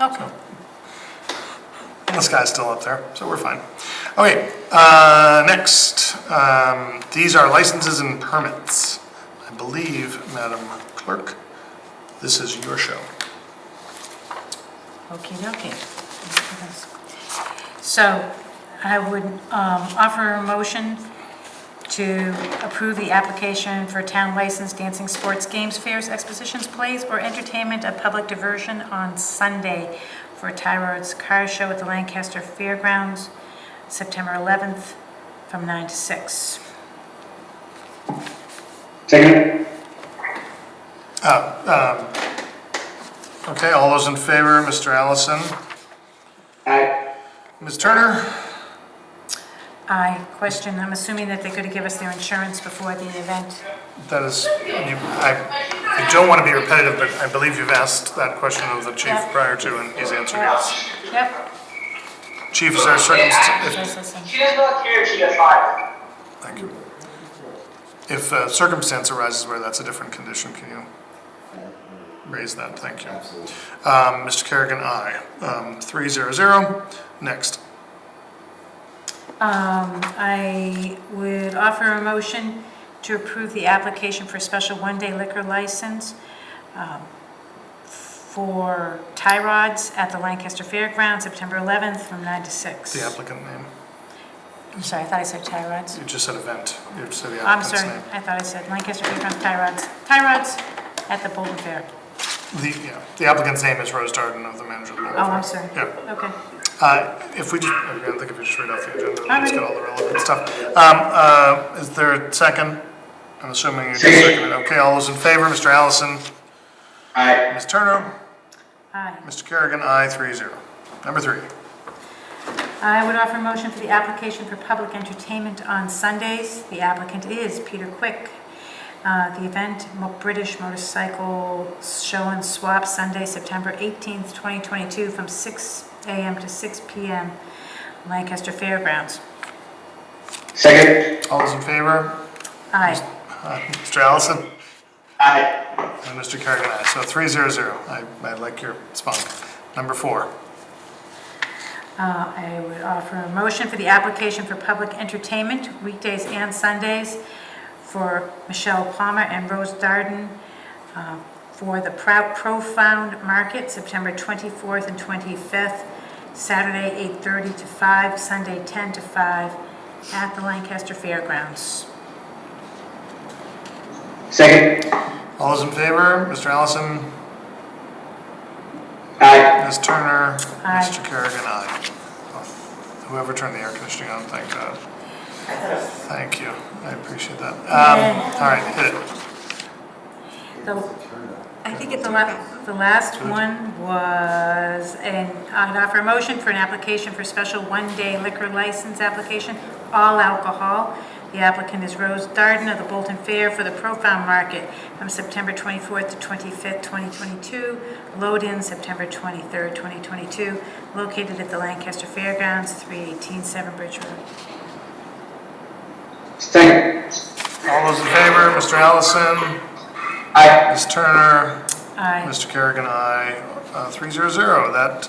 Okay. And the sky's still up there, so we're fine. Okay, uh, next, um, these are licenses and permits. I believe, Madam Clerk, this is your show. Okie dokie. So I would um, offer a motion to approve the application for town license dancing, sports, games, fairs, expositions, plays, or entertainment of public diversion on Sunday for Tyrod's Car Show at the Lancaster Fairgrounds, September 11th, from 9 to 6. Second. Okay, all those in favor, Mr. Allison, Aye. Ms. Turner? I question, I'm assuming that they're going to give us their insurance before the event. That is, you, I, I don't want to be repetitive, but I believe you've asked that question of the chief Yeah. prior to, and he's answered yes. Yep. Chief, is there circumstances, Yes, yes, yes. She does not care if she gets fired. thank you. If a circumstance arises where that's a different condition, can you raise that? Thank you. Um, Mr. Kerrigan, aye. Um, three zero zero. Next. Um, I would offer a motion to approve the application for a special one-day liquor license um, for tie rods at the Lancaster Fairgrounds, September 11th, from 9 to 6. The applicant name. I'm sorry, I thought I said tie rods. Oh, You just said event. You just said the I'm applicant's sorry, name. I thought I said Lancaster Fairgrounds tie rods, tie rods at the Bolton Fair. The, yeah, the applicant's name is Rose Darden of the manager. of the Oh, I'm sorry. Yeah. Okay. Uh, If we just, I don't think if we just read off the agenda, we'll just Alright. get all the relevant stuff. Um, uh, Is there a second? I'm assuming you just seconded. Okay, all those in favor, Mr. Allison, Aye. Ms. Turner, Aye. Mr. Kerrigan, aye, three zero. Number three, I would offer a motion for the application for public entertainment on Sundays. The applicant is Peter Quick. Uh, The event, Mo- British Motorcycle Show and Swap, Sunday, September 18th, 2022, from 6 a.m. to 6 p.m., Lancaster Fairgrounds. Second. all those in favor, Aye. Uh, Mr. Allison Aye. and Mr. Kerrigan, aye, so three zero zero. I, I like your spunk. Number four, Uh, I would offer a motion for the application for public entertainment weekdays and Sundays for Michelle Palmer and Rose Darden uh, for the Prou- Profound Market, September 24th and 25th, Saturday 8:30 to 5, Sunday 10 to 5, at the Lancaster Fairgrounds. Second. all those in favor, Mr. Allison, Aye. Ms. Turner, Aye. Mr. Kerrigan, aye. Whoever turned the air conditioning on, thank God. Thank you, I appreciate that. Um, all right, hit it. The- I think it's the last, the last one was, an I'd offer a motion for an application for special one-day liquor license application, all alcohol. The applicant is Rose Darden of the Bolton Fair for the Profound Market from September 24th to 25th, 2022. Load-in September 23rd, 2022, located at the Lancaster Fairgrounds, 318 Seven Bridge Road. Second. All those in favor, Mr. Allison, Aye. Ms. Turner, Aye. Mr. Kerrigan, I, uh, three zero zero. That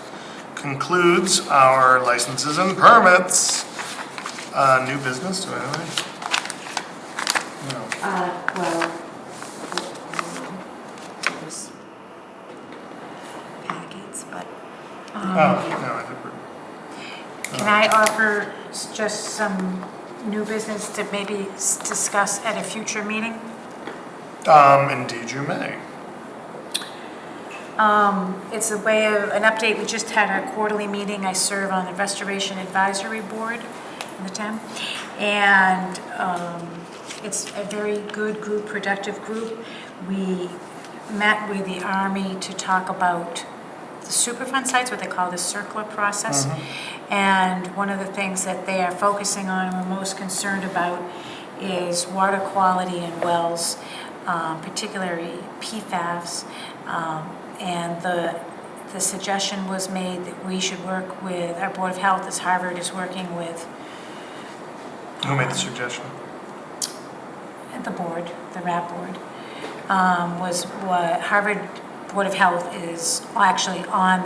concludes our licenses and permits. Uh, new business, do I have any? No. Uh, well. uh, there's Packets, but, um, Oh, no, I think we're, Can I offer s- just some new business to maybe s- discuss at a future meeting? um, indeed you may. Um, It's a way of, an update, we just had our quarterly meeting, I serve on the Restoration Advisory Board in the town, and um, it's a very good group, productive group. We met with the Army to talk about the Superfund sites, what they call the circular process, and one of the things that they are focusing on, and we're most concerned about, is water quality in wells, um, particularly PFAS, um, and the, the suggestion was made that we should work with, our Board of Health, as Harvard is working with Who made the suggestion? at the board, the RAB board, um, was what Harvard Board of Health is actually on the